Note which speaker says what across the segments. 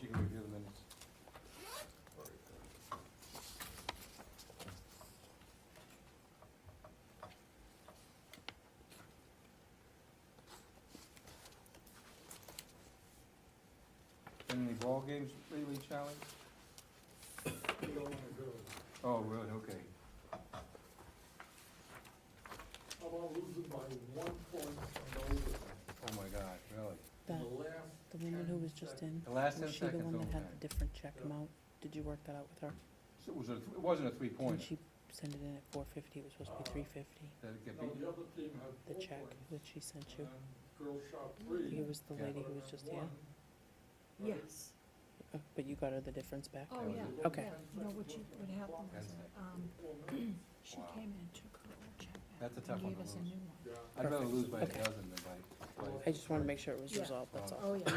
Speaker 1: You can review the minutes. Been any ball games lately, Charlie? Oh, really, okay.
Speaker 2: How about losing by one point on overtime?
Speaker 1: Oh my God, really?
Speaker 2: The
Speaker 3: The,
Speaker 2: last.
Speaker 3: the woman who was just
Speaker 2: 10
Speaker 3: in,
Speaker 1: The last ten
Speaker 3: was she the
Speaker 1: seconds
Speaker 3: one that had
Speaker 1: overtime.
Speaker 3: the different check amount? Did you work that out with her?
Speaker 1: So It was a, it wasn't a
Speaker 3: Didn't
Speaker 1: three-pointer.
Speaker 3: she send it in at four fifty, it was supposed to be
Speaker 2: Uh,
Speaker 3: three fifty,
Speaker 1: Did it get
Speaker 2: No,
Speaker 1: beat?
Speaker 2: the other team had
Speaker 3: the
Speaker 2: four
Speaker 3: check
Speaker 2: points,
Speaker 3: that she sent you?
Speaker 2: and Girls shot three.
Speaker 3: It was the
Speaker 1: Yeah.
Speaker 3: lady
Speaker 2: but
Speaker 3: who was
Speaker 2: then
Speaker 3: just
Speaker 2: one, but it-
Speaker 3: here,
Speaker 4: Yes,
Speaker 3: Uh, but you got her the difference back?
Speaker 4: oh,
Speaker 1: was
Speaker 4: yeah.
Speaker 1: it.
Speaker 2: Yeah.
Speaker 3: Okay.
Speaker 4: No, what you, what happened was, um,
Speaker 2: four minutes.
Speaker 4: she
Speaker 1: Wow.
Speaker 4: came in and took her old check back
Speaker 1: That's a tough
Speaker 4: and
Speaker 1: one
Speaker 4: gave
Speaker 1: to
Speaker 4: us a
Speaker 1: lose.
Speaker 4: new one.
Speaker 2: Yeah.
Speaker 1: I'd rather
Speaker 3: Perfect.
Speaker 1: lose by a
Speaker 3: Okay.
Speaker 1: dozen than by, by,
Speaker 3: I just wanna make sure it was
Speaker 4: Yeah.
Speaker 3: resolved, that's all.
Speaker 4: Oh, yeah.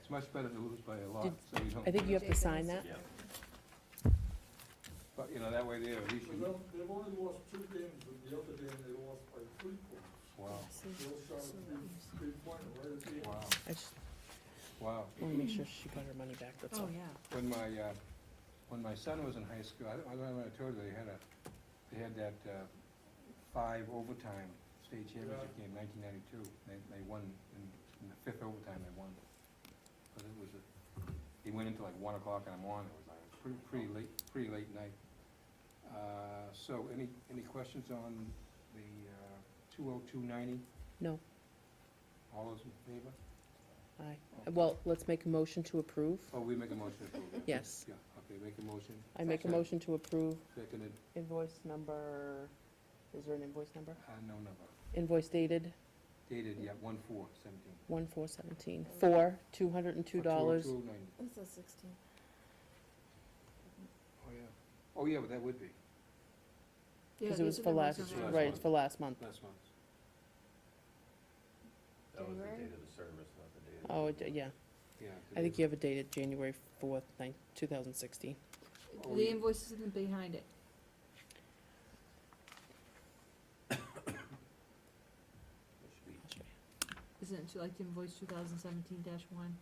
Speaker 1: it's much better to lose by a lot,
Speaker 3: Did-
Speaker 1: so you don't.
Speaker 3: I think you have to sign that,
Speaker 4: Yeah.
Speaker 1: But, you know, that way there, at least
Speaker 2: So
Speaker 1: you,
Speaker 2: they'll- They've only lost two games, and the other game they lost by three points.
Speaker 1: wow,
Speaker 4: See,
Speaker 2: Girls shot
Speaker 4: so
Speaker 2: a
Speaker 4: that
Speaker 2: three,
Speaker 4: was-
Speaker 2: three pointer right at the end.
Speaker 1: wow,
Speaker 3: I just
Speaker 1: wow.
Speaker 3: wanna make sure she got her money back, that's
Speaker 4: Oh,
Speaker 3: all.
Speaker 4: yeah.
Speaker 1: When my, uh, when my son was in high school, I don't, I don't know if I told you, they had a, they had that, uh, five overtime state championship game, nineteen ninety-two. They, they won, in, in the fifth overtime, they won. But it was, a- they went into like one o'clock in the morning, it was like, a pretty, pretty late, pretty late night. Uh, so, any, any questions on the, uh, two oh two ninety?
Speaker 3: No.
Speaker 1: All those in favor?
Speaker 3: Aye, well, let's make a motion to approve,
Speaker 1: Oh, we make a motion to approve it?
Speaker 3: Yes.
Speaker 1: Yeah, okay, make a motion.
Speaker 3: I make a motion to approve
Speaker 1: Seconded,
Speaker 3: invoice number, is there an invoice number?
Speaker 1: uh, no number,
Speaker 3: Invoice dated
Speaker 1: dated, yeah, one four seventeen.
Speaker 3: one four seventeen, for two hundred and two dollars.
Speaker 1: Two oh nine.
Speaker 4: It's a sixteen.
Speaker 1: Oh, yeah. Oh, yeah, but that would be,
Speaker 3: Because it was for last,
Speaker 1: on there.
Speaker 3: right, it's for last month.
Speaker 1: last month.
Speaker 5: That was the
Speaker 4: January?
Speaker 5: date of the service, not the date of the.
Speaker 3: Oh, it- yeah,
Speaker 1: yeah.
Speaker 3: I think you have it dated January fourth, nine, two thousand sixteen.
Speaker 1: Oh,
Speaker 4: The
Speaker 1: yeah.
Speaker 4: invoice isn't behind it.
Speaker 5: It should be-
Speaker 4: Isn't it like invoice two thousand seventeen dash one?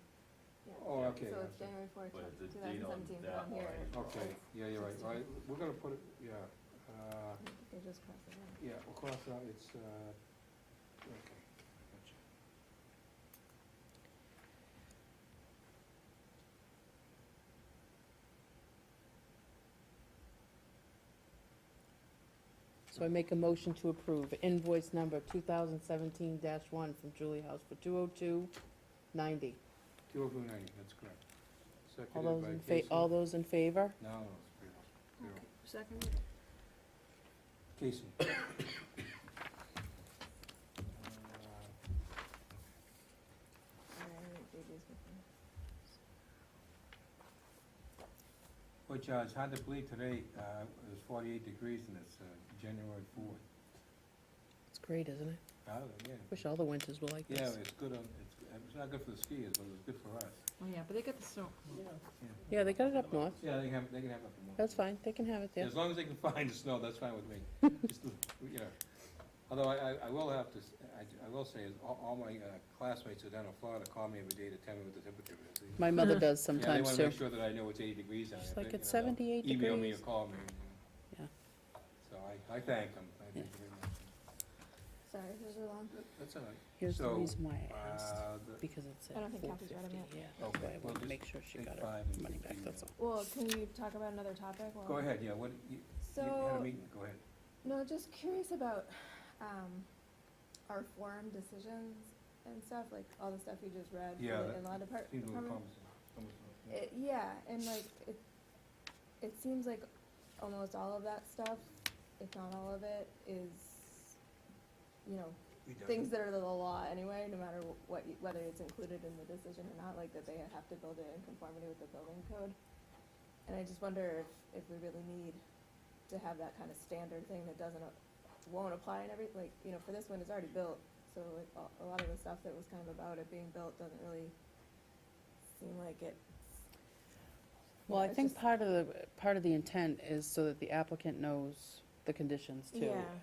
Speaker 1: Oh, okay,
Speaker 6: So it's
Speaker 1: I see.
Speaker 6: January fourth,
Speaker 5: But
Speaker 6: two
Speaker 5: the date
Speaker 6: thousand
Speaker 5: on
Speaker 6: seventeen, but
Speaker 5: that
Speaker 6: on
Speaker 5: one
Speaker 6: here,
Speaker 5: is wrong.
Speaker 1: okay, yeah, you're right, all right, we're gonna put it, yeah, uh,
Speaker 6: they just crossed it out.
Speaker 1: yeah, we'll cross out, it's, uh, okay. gotcha.
Speaker 3: So I make a motion to approve invoice number two thousand seventeen one from Julie House for two oh two ninety.
Speaker 1: Two oh two ninety, that's correct.
Speaker 3: All
Speaker 1: Seconded
Speaker 3: those
Speaker 1: by
Speaker 3: in
Speaker 1: Casey.
Speaker 3: fa, all those in favor?
Speaker 1: No, no, it's zero, zero.
Speaker 4: Second?
Speaker 1: Casey. Uh, Uh,
Speaker 6: And then they just went from-
Speaker 1: Which, uh, it's hard to believe today, uh, it was forty-eight degrees and it's, uh, January fourth.
Speaker 3: It's great, isn't it?
Speaker 1: Oh, yeah.
Speaker 3: Wish all the winters were like
Speaker 1: Yeah,
Speaker 3: this.
Speaker 1: it's good on, it's, it's not good for the skiers, but it's good for us.
Speaker 4: Oh, yeah, but they got the snow.
Speaker 3: Yeah, they got it up north.
Speaker 1: Yeah, they can have, they can have up in
Speaker 3: That's fine, they can have it there.
Speaker 1: As long as they can find the snow, that's fine with me. Just, you know. Although I, I- I will have to, s- I, I will say, is all, all my uh, classmates who are down in Florida call me every day to tell me what the temperature is. They-
Speaker 3: My mother does
Speaker 1: Yeah, they
Speaker 3: sometimes
Speaker 1: wanna
Speaker 3: too.
Speaker 1: make sure that I know it's eighty degrees out.
Speaker 3: She's
Speaker 1: If
Speaker 3: like,
Speaker 1: they-
Speaker 3: "It's
Speaker 1: you know, they'll
Speaker 3: 78
Speaker 1: Email me or
Speaker 3: degrees."
Speaker 1: call me.
Speaker 3: Yeah.
Speaker 1: So I, I thank them. I thank them very much.
Speaker 6: Sorry, those are long.
Speaker 1: That- That's all right.
Speaker 3: Here's the
Speaker 1: So,
Speaker 3: reason why I asked,
Speaker 1: Uh, the-
Speaker 3: because it said
Speaker 6: I don't think
Speaker 3: four
Speaker 6: Kathy's
Speaker 3: fifty,
Speaker 6: got 'em yet.
Speaker 3: yeah.
Speaker 1: Okay,
Speaker 3: That's why I
Speaker 1: well,
Speaker 3: wanted to
Speaker 1: just
Speaker 3: make sure she
Speaker 1: take
Speaker 3: got her
Speaker 1: five and
Speaker 3: money
Speaker 1: just
Speaker 3: back,
Speaker 1: leave
Speaker 3: that's all.
Speaker 1: it.
Speaker 6: Well, can we talk about another topic? while-
Speaker 1: Go ahead, yeah, what, you, you had a
Speaker 6: So,
Speaker 1: meeting, go ahead.
Speaker 6: no, just curious about, um, our forum decisions and stuff, like all the stuff you just read uh, for
Speaker 1: Yeah,
Speaker 6: the
Speaker 1: that
Speaker 6: in-law depart-
Speaker 1: Seems a little
Speaker 6: department. um,
Speaker 1: cumbersome. cumbersome, yeah.
Speaker 6: It, yeah, and like, it, it seems like almost all of that stuff, if not all of it, is, you know, things that are the law anyway, no matter wh- what, you- whether it's included in the decision or not, like that they have to build it in conformity with the building code. And I just wonder if, if we really need to have that kind of standard thing that doesn't, a- won't apply in every, like, you know, for this one, it's already built. So like, a, a lot of the stuff that was kind of about it being built doesn't really seem like it.
Speaker 3: Well, I
Speaker 6: it's
Speaker 3: think
Speaker 6: just-
Speaker 3: part of the, part of the intent is so that the applicant knows the conditions too.
Speaker 6: Yeah.